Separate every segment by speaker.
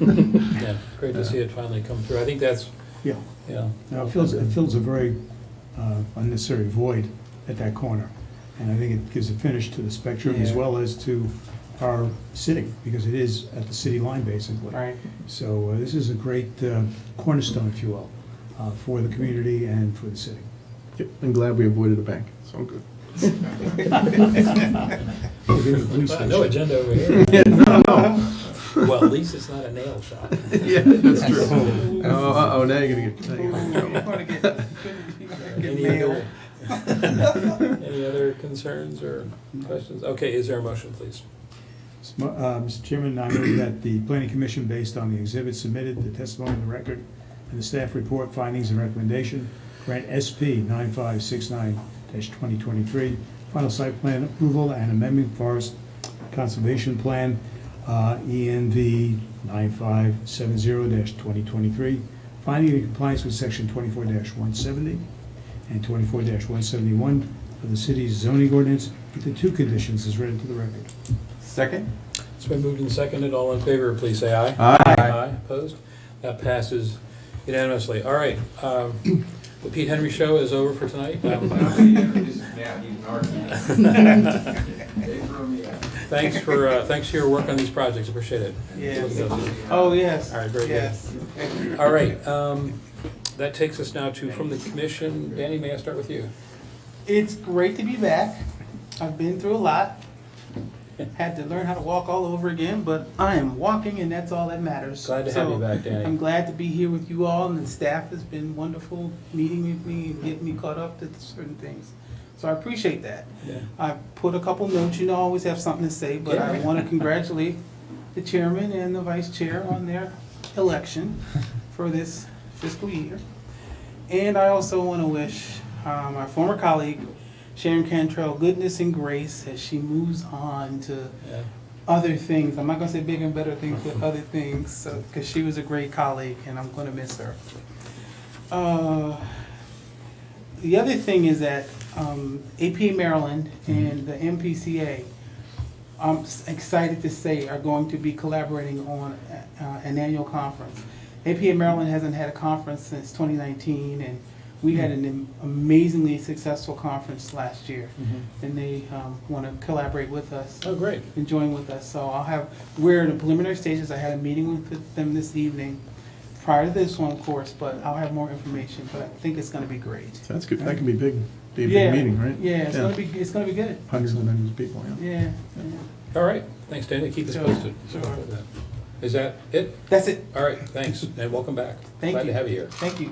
Speaker 1: Yeah, great to see it finally come through. I think that's,
Speaker 2: Yeah,
Speaker 1: yeah,
Speaker 2: now it fills, it fills a very uh, unnecessary void at that corner. And I think it gives a finish to the spectrum as
Speaker 3: Yeah.
Speaker 2: well as to our city, because it is at the city line, basically.
Speaker 3: Right.
Speaker 2: So uh, this is a great uh, cornerstone, if you will, uh, for the community and for the city.
Speaker 4: Yep, I'm glad we avoided a bank, so I'm good.
Speaker 2: We'll give you a police
Speaker 1: Wow,
Speaker 2: station.
Speaker 1: no agenda over here. Well, at least it's not a nail shop.
Speaker 4: Yeah, that's true. Oh, uh-oh, now you're gonna get, now you're gonna get in trouble.
Speaker 3: You're gonna get- you're gonna get
Speaker 1: Any
Speaker 3: mail.
Speaker 1: other, any other concerns or questions? Okay, is there a motion, please?
Speaker 2: Sm- uh, Mr. Chairman, I move that the planning commission, based on the exhibit submitted, the testimony in the record, and the staff report findings and recommendation, grant SP 9569-2023, final site plan approval and amendment forest conservation plan, uh, ENV 9570-2023, finding in compliance with section 24-170 and 24-171 of the city's zoning ordinance with the two conditions as read into the record.
Speaker 4: Second?
Speaker 1: It's been moved and seconded. All in favor, please say aye.
Speaker 4: Aye.
Speaker 1: Aye, opposed? That passes unanimously. All right, um, the Pete Henry Show is over for tonight. Um,
Speaker 5: They threw me out.
Speaker 1: Thanks for, uh, thanks for your work on these projects. Appreciate it.
Speaker 3: Yes. Oh, yes.
Speaker 1: All right, very good.
Speaker 3: Yes.
Speaker 1: All right, um, that takes us now to from the commission. Danny, may I start with you?
Speaker 3: It's great to be back. I've been through a lot. Had to learn how to walk all over again, but I am walking and that's all that matters.
Speaker 1: Glad to have you
Speaker 3: So,
Speaker 1: back, Danny.
Speaker 3: I'm glad to be here with you all and the staff has been wonderful meeting with me and getting me caught up to certain things. So I appreciate that.
Speaker 1: Yeah.
Speaker 3: I put a couple notes, you know, I always have something to say, but I
Speaker 1: Yeah.
Speaker 3: want to congratulate the chairman and the vice chair on their election for this fiscal year. And I also want to wish um, our former colleague Sharon Cantrell goodness and grace as she moves on to
Speaker 1: Yeah.
Speaker 3: other things. I'm not gonna say big and better things, but other things, so, cause she was a great colleague and I'm gonna miss her. Uh, The other thing is that, um, AP Maryland
Speaker 1: Mm-hmm.
Speaker 3: and the MPCA, I'm s- excited to say are going to be collaborating on, uh, an annual conference. APA Maryland hasn't had a conference since twenty nineteen and we had an
Speaker 1: Mm-hmm.
Speaker 3: amazingly successful conference last year.
Speaker 1: Mhm.
Speaker 3: And they, um, wanna collaborate with us
Speaker 1: Oh, great.
Speaker 3: and join with us. So I'll have, we're in the preliminary stages. I had a meeting with them this evening prior to this one, of course, but I'll have more information, but I think it's gonna be great.
Speaker 4: Sounds good, that can be big, be a
Speaker 3: Yeah.
Speaker 4: big meeting, right?
Speaker 3: Yeah, it's gonna be, it's gonna be good.
Speaker 4: Hundreds and hundreds of people, yeah.
Speaker 3: Yeah. yeah.
Speaker 1: All right, thanks, Danny. Keep us
Speaker 3: Sure,
Speaker 1: posted.
Speaker 3: sure.
Speaker 1: Is that it?
Speaker 3: That's it.
Speaker 1: All right, thanks, and welcome back.
Speaker 3: Thank
Speaker 1: Glad to
Speaker 3: you.
Speaker 1: have you here.
Speaker 3: Thank you.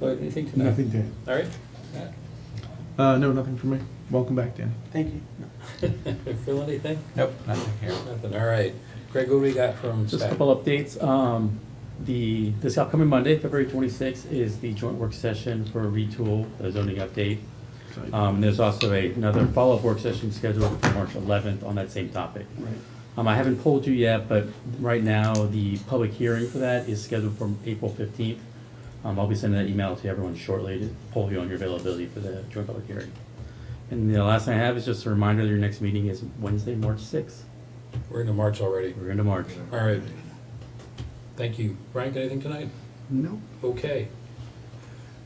Speaker 1: Lloyd, anything tonight?
Speaker 2: Nothing to add.
Speaker 1: All right. Matt?
Speaker 4: Uh, no, nothing for me. Welcome back, Danny.
Speaker 3: Thank you.
Speaker 1: Phil, anything?
Speaker 5: Nope, nothing here.
Speaker 1: Nothing, all right. Greg, what do we got from
Speaker 6: Just a
Speaker 1: staff?
Speaker 6: couple updates. Um, The, this upcoming Monday, February 26th, is the joint work session for retool, the zoning update.
Speaker 4: Sorry.
Speaker 6: Um, And there's also a- another follow-up work session scheduled for March 11th on that same topic. Um, I haven't polled you yet, but right now, the public hearing for that is scheduled for April 15th. Um, I'll be sending that email to everyone shortly to poll you on your availability for the joint public hearing. And the last thing I have is just a reminder that your next meeting is Wednesday, March 6th.
Speaker 1: We're into March already.
Speaker 6: We're into March.
Speaker 1: All right. Thank you. Frank, anything tonight?
Speaker 4: No.
Speaker 1: Okay.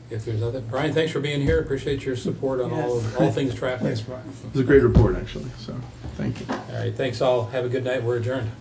Speaker 1: If there's nothing, Brian, thanks for being here. Appreciate your support on all, of- all things traffic.
Speaker 2: Brian.
Speaker 4: It was a great report, actually, so, thank you.
Speaker 1: All right, thanks all. Have a good night. We're adjourned.